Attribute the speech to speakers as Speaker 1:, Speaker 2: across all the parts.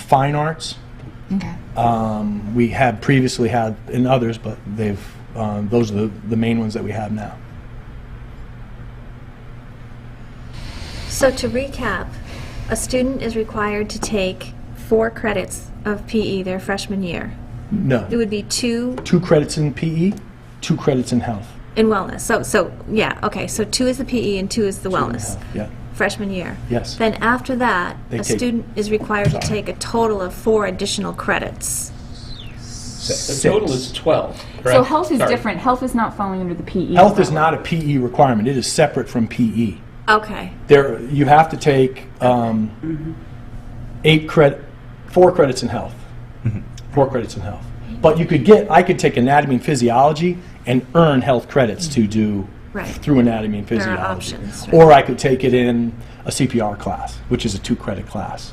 Speaker 1: fine arts.
Speaker 2: Okay.
Speaker 1: Um, we have previously had in others, but they've um, those are the, the main ones that we have now.
Speaker 3: So to recap, a student is required to take four credits of PE their freshman year.
Speaker 1: No,
Speaker 3: It would be two
Speaker 1: two credits in PE, two credits in health.
Speaker 3: in wellness. So, so, yeah, okay, so two is the PE and two is the
Speaker 1: In
Speaker 3: wellness,
Speaker 1: health, Yeah,
Speaker 3: freshman year.
Speaker 1: Yes.
Speaker 3: Then after that,
Speaker 1: They
Speaker 3: a
Speaker 1: take-
Speaker 3: student is required to
Speaker 1: Sorry.
Speaker 3: take a total of four additional credits.
Speaker 4: The total is 12, correct?
Speaker 2: So health is
Speaker 4: Sorry.
Speaker 2: different. Health is not falling under the E. PE.
Speaker 1: health is
Speaker 2: umbrella.
Speaker 1: not a PE requirement. It is separate from E. PE.
Speaker 3: Okay,
Speaker 1: There, you have to take um, eight credit, four credits in health, four credits in health. But you could get, I could take anatomy and physiology and earn health credits to do
Speaker 3: Right.
Speaker 1: through anatomy and
Speaker 3: are
Speaker 1: physiology.
Speaker 3: options, right.
Speaker 1: Or I could take it in a CPR class, which is a two-credit class,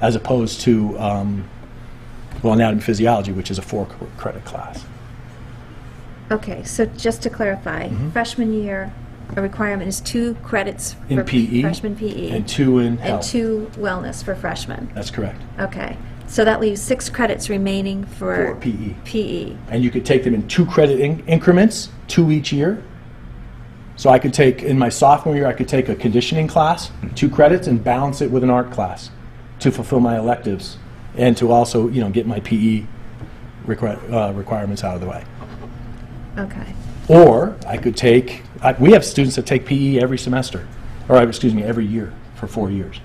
Speaker 1: as opposed to, um, well, anatomy and physiology, which is a four-credit class.
Speaker 3: okay, so just to clarify,
Speaker 1: Mm-hmm.
Speaker 3: freshman year, a requirement is two credits
Speaker 1: In
Speaker 3: for
Speaker 1: PE.
Speaker 3: freshman PE.
Speaker 1: And two in
Speaker 3: And
Speaker 1: health.
Speaker 3: two wellness for freshmen.
Speaker 1: That's correct.
Speaker 3: Okay, so that leaves six credits remaining
Speaker 1: For E.
Speaker 3: for E.
Speaker 1: PE.
Speaker 3: PE.
Speaker 1: and you could take them in two credit in- increments, two each year. So I could take in my sophomore year, I could take a conditioning class, two credits, and balance it with an art class to fulfill my electives and to also, you know, get my PE requi- uh, requirements out of the way.
Speaker 3: Okay,
Speaker 1: Or I could take, I, we have students that take PE every semester, or uh, excuse me, every year for four years.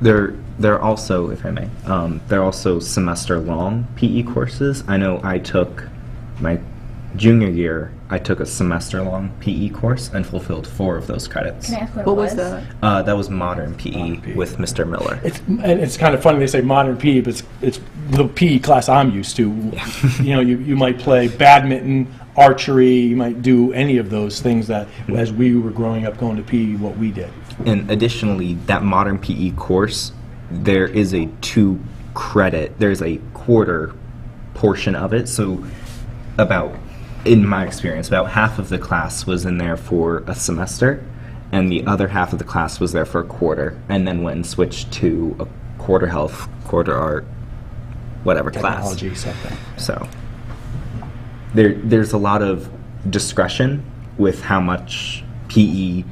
Speaker 5: They're they're also, if I may, um, they're also semester long PE courses. I know I took my junior year. I took a semester long PE course and fulfilled four of those credits.
Speaker 2: Can I ask what,
Speaker 6: What
Speaker 2: it
Speaker 6: was the?
Speaker 5: Uh, that was modern PE,
Speaker 1: Modern PE.
Speaker 5: with Mr. Miller.
Speaker 1: It's, and it's kind of funny they say modern PE, but it's, it's the PE class I'm used to. you know, you, you might play badminton, archery, you might do any of those things that, as we were growing up going to PE, what we did.
Speaker 5: And additionally, that modern PE course, there is a two credit, there's a quarter portion of it. So, about, in my experience, about half of the class was in there for a semester, and the other half of the class was there for a quarter, and then went and switched to a quarter health, quarter art, whatever class.
Speaker 1: Technology, something.
Speaker 5: So there there's a lot of discretion with how much PE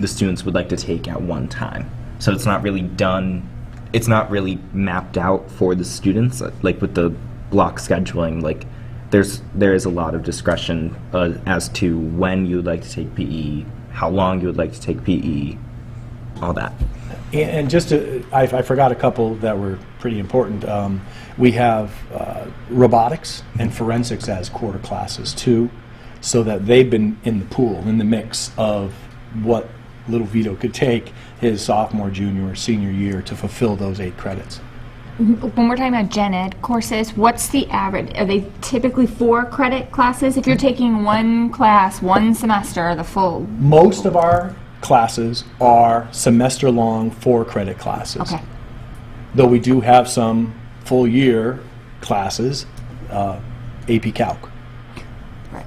Speaker 5: the students would like to take at one time. So it's not really done it's not really mapped out for the students uh, like with the block scheduling like there's there is a lot of discretion uh, as to when you would like to take PE, how long you would like to take PE, all that.
Speaker 1: And, and just to, I, I forgot a couple that were pretty important. Um, we have uh, robotics and forensics as quarter classes too, so that they've been in the pool, in the mix of what little Vito could take his sophomore, junior, or senior year to fulfill those eight credits.
Speaker 2: when we're talking about gen ed courses, what's the average? Are they typically four credit classes?
Speaker 1: Hmm.
Speaker 2: If you're taking one class, one semester, the full.
Speaker 1: Most of our classes are semester long, four credit classes.
Speaker 2: Okay.
Speaker 1: Though we do have some full year classes, uh, AP Calc,
Speaker 2: Right.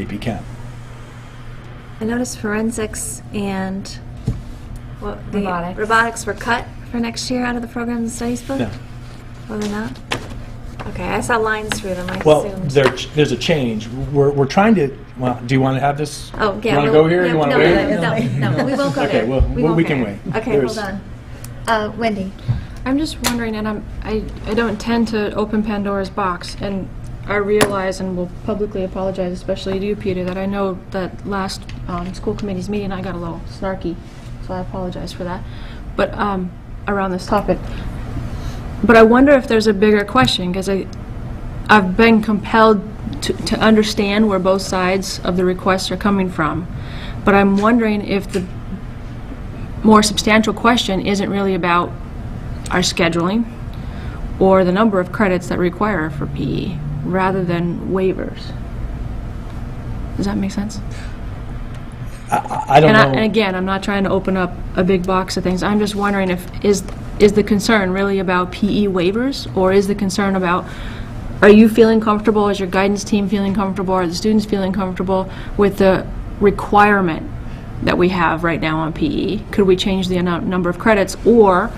Speaker 1: AP Chem.
Speaker 3: I noticed forensics and what, the
Speaker 2: Robotics.
Speaker 3: robotics were cut for next year out of the program and studies book?
Speaker 1: Yeah.
Speaker 3: Were they not? Okay, I saw lines through them, I
Speaker 1: Well,
Speaker 3: assumed.
Speaker 1: there, there's a change. We're, we're trying to, well, do you want to have this?
Speaker 3: Oh, yeah.
Speaker 1: You want to
Speaker 3: we'll-
Speaker 1: go here, or
Speaker 3: yeah,
Speaker 1: you want to
Speaker 3: no,
Speaker 1: wait?
Speaker 3: No, no, no, we won't go
Speaker 1: Okay,
Speaker 3: there.
Speaker 1: well, we-
Speaker 3: won't
Speaker 1: we
Speaker 3: go
Speaker 1: can
Speaker 3: there.
Speaker 1: wait.
Speaker 3: Okay,
Speaker 1: There's-
Speaker 3: hold on. Uh, Wendy?
Speaker 6: I'm just wondering, and I'm, I, I don't intend to open Pandora's box, and I realize and will publicly apologize, especially to you, Peter, that I know that last um, school committee's meeting, I got a little snarky, so I apologize for that, but, um, around this topic. But I wonder if there's a bigger question, because I, I've been compelled to, to understand where both sides of the requests are coming from, but I'm wondering if the more substantial question isn't really about our scheduling or the number of credits that require for PE rather than waivers. Does that make sense?
Speaker 1: I don't
Speaker 6: And, I, and
Speaker 1: know.
Speaker 6: again, I'm not trying to open up a big box of things. I'm just wondering if is is the concern really about PE waivers or is the concern about are you feeling comfortable? Is your guidance team feeling comfortable? Are the students feeling comfortable with the E? requirement that we have right now on PE? Could we change the amount, number of credits or